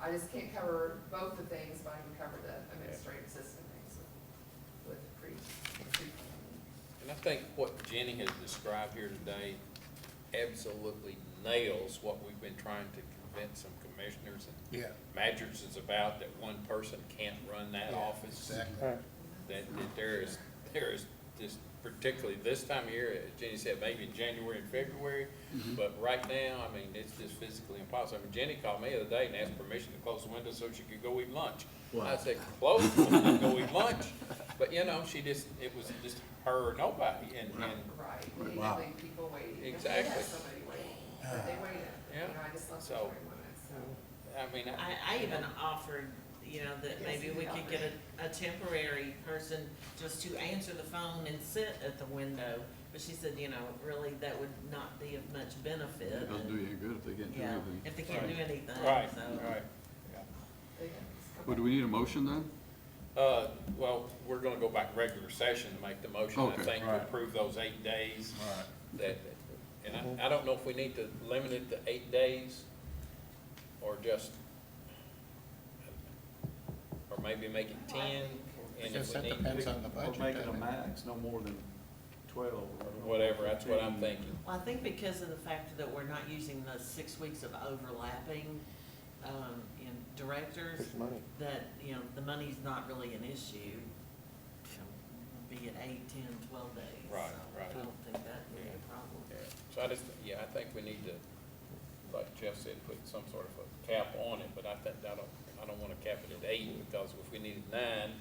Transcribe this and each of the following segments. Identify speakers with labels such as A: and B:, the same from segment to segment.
A: I just can't cover both the things, but I can cover the administrative assistant things with with pre, pre-planning.
B: And I think what Jenny has described here today absolutely nails what we've been trying to convince some commissioners and
C: Yeah.
B: managers is about, that one person can't run that
C: yeah,
B: office.
C: Exactly.
D: Right.
B: That, that there is, there is, this, particularly this time of year, as Jenny said, maybe in January and February, but right now, I mean, it's just physically impossible. I mean, Jenny called me the other day and asked permission to close the window so she could go eat lunch. I said, close the window, go eat lunch, but you know, she just, it was just her or nobody, and, and
A: Right, we need to
C: Wow.
A: leave people waiting. If we had
B: Exactly.
A: somebody waiting, but they waited, you
B: Yeah.
A: know, I just left
B: So-
A: them twenty minutes, so.
B: I mean, I,
E: I, I even offered, you know, that
A: Yes,
E: maybe
A: you
E: we
A: did
E: could get a, a temporary person just to answer the phone and sit at the window. But she said, you know, really, that would not be of much
F: It
E: benefit.
F: doesn't do you any good if they can't do
E: Yeah,
F: anything.
E: if they can't do anything,
B: right,
E: so.
B: right.
A: they can just come
F: Well, do
A: back.
F: we need a motion then?
B: Uh, well, we're gonna go back regular session to make the motion, I
F: Okay.
B: think, to
C: Right.
B: approve those eight days.
C: Right.
B: That, and I, I don't know if we need to limit it to eight days, or just, or maybe make it ten, and
C: I
B: if
C: guess
B: we
C: that
B: need,
C: depends on the budget.
G: Or make it a
C: doesn't it?
G: max, no more than twelve. or no more than
B: whatever, that's what I'm
C: Mm.
G: 15.
B: thinking.
E: Well, I think because of the fact that we're not using the six weeks of overlapping, um, in directors,
D: There's money.
E: that, you know, the money's not really an issue. So, Be it eight, ten, twelve days.
B: Right,
E: so
B: right.
E: I don't think that would be a problem.
B: Yeah. So I just, yeah, I think we need to, like Jeff said, put some sort of a cap on it, but I think, I don't, I don't wanna cap it at eight, because if we needed nine,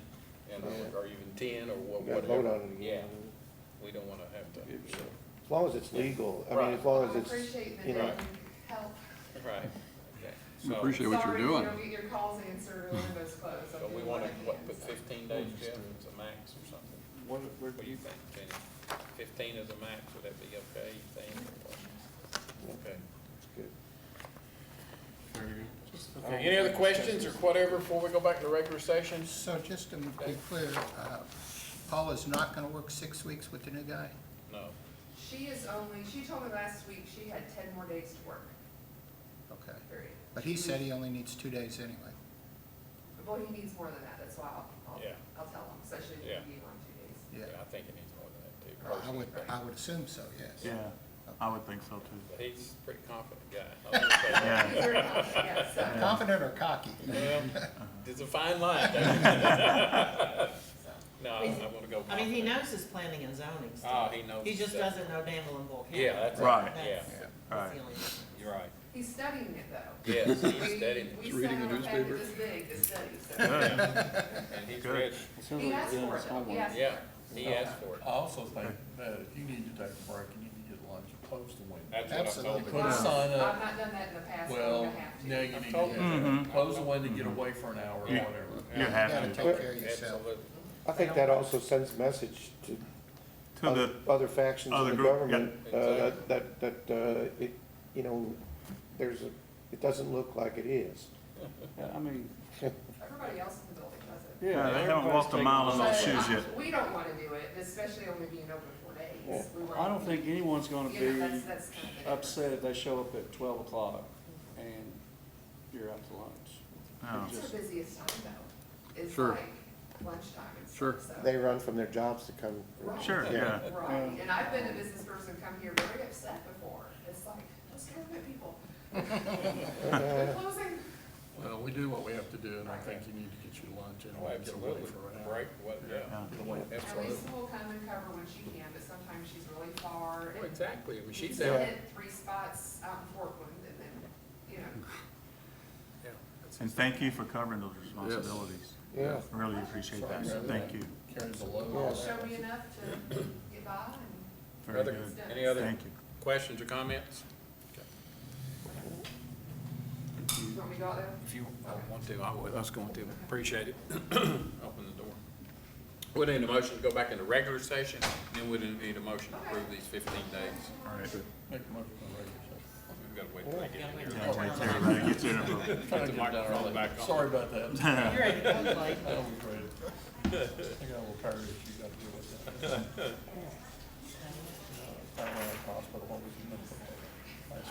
B: you know, or even ten, or wha-
D: We gotta
B: whatever.
D: vote on it again.
B: Yeah, we don't wanna have to,
D: As long as it's legal, I mean,
B: Right.
D: as long as
A: I
D: it's,
A: appreciate that
D: you
A: they
D: know.
A: can help.
B: right, okay.
F: We
B: So-
F: appreciate what you're doing.
A: Sorry, if you don't get your calls answered, the window's closed. I'll
B: So
A: do
B: we
A: what I
B: wanna, what,
A: can,
B: put
A: so.
B: fifteen days, Jeff, as a max or something?
G: What, where,
B: What do you think, Jenny? Fifteen as a max, would that be okay, you think? or what? Okay.
D: it's good.
B: Okay, Any other questions or whatever before we go back to regular session?
C: So just to be clear, uh, Paula's not gonna work six weeks with the new guy?
B: No.
A: She is only, she told me last week she had ten more days to work,
C: Okay.
A: period.
C: But he said he only needs two days anyway.
A: Well, he needs more than that, that's why I'll, I'll,
B: Yeah.
A: I'll tell him, especially
B: Yeah.
A: if you want two days.
B: Yeah,
C: Yeah. Uh-huh.
B: I think it needs more than that too.
C: I
B: personally.
C: would, I would assume so, yes.
G: yeah, I would think so too.
B: But He's a pretty confident guy. I'll say that.
G: Yeah.
A: Very much, yes, so-
C: Confident or cocky?
B: Well, It's a fine line. though. No, I want to go.
E: I mean, he
B: confident.
E: knows his planning and zoning
B: Oh,
E: stuff.
B: he knows.
E: He just
B: stuff.
E: doesn't know Danville and Bull County.
B: Yeah, that's
G: Right.
B: right, yeah,
E: That's-
C: Yeah.
E: That's the
G: Right.
E: only difference.
B: you're right.
A: He's studying it though.
B: Yes,
A: We-
B: he's studying,
A: We
F: Reading
A: sent
F: the
A: him a packet
F: newspaper.
A: this big to study, so.
B: and he's
G: Good.
B: ready.
A: He asked for it though, he asked for it.
B: Yeah, he asked for it.
H: I also think that if you need to take a break and you need to get lunch, post the window.
B: That's what I told
C: Absolutely.
B: him.
H: Put a sign
A: I've
H: up,
A: not done that in the past, but I'm
H: well,
A: gonna have to.
H: now you
B: I
H: need
B: told
H: to,
B: him.
H: get- close the window, get
B: Mm-hmm.
H: away for an hour or
G: Yeah.
H: whatever.
G: You
C: You gotta
G: have to,
C: take care of yourself.
B: Absolutely.
D: I think that also sends message to
G: to the,
D: oth- other factions
G: other
D: in the
G: group, yeah.
D: government, uh, that,
B: Exactly.
D: that, that, uh, it, you know, there's, a it doesn't look like it is.
F: Yeah, I mean.
A: Everybody else in the building does it.
G: yeah, they haven't walked a mile in those
A: So,
G: shoes
A: I-
G: yet.
A: We don't wanna do it, especially only being open four
D: Yeah.
A: days. We want-
G: I don't think anyone's gonna
A: You know,
G: be
A: that's, that's kind of the difference.
G: upset if they show up at twelve o'clock and you're out to lunch.
F: No.
A: It's the busiest time though, is
F: Sure.
A: like lunchtime and
F: Sure.
A: stuff,
D: They
A: so.
D: run from their jobs to come.
A: Right.
G: Sure, yeah.
B: Um,
A: Right, and I've been a business person come here very upset before, it's like, those government people,
B: Uh,
A: they're closing.
H: Well, we do what we have to do, and I think you need to get your lunch and
B: Oh,
H: get away
B: absolutely.
H: for an hour.
B: Break, what, yeah,
H: Get away.
A: At
B: absolutely.
A: least we'll come and cover when she can, but sometimes she's really far. and
B: Well, Oh, Exactly, I mean,
A: She's
B: she's out.
A: hit three spots out in Portland and then, you know.
B: Yeah.
G: And thank you for covering those responsibilities.
D: Yeah.
G: I Really appreciate that, thank you,
H: Carry the
D: Yeah.
H: load.
A: show me enough to get by and
G: very
B: Other-
G: good,
B: Any other
G: thank you.
B: questions or comments?
A: you want me to go out there?
B: If you don't want to, I would, I was going to, appreciate it. Open the door. We need a motion to go back into regular session, then we didn't need a motion to approve these fifteen days.
F: All right.
H: Make a motion for a regular
B: We've got
H: session.
B: to wait till they get in
G: Yeah,
B: here.
G: wait till everybody gets in and-
H: Trying to
B: the
H: get it done
B: microphone
H: early.
B: back on.
H: Sorry about that.
E: You're ready to go, Blake.
H: That was great. I got a little tired issue, got to deal with that. Uh, I went to the hospital, what was the number?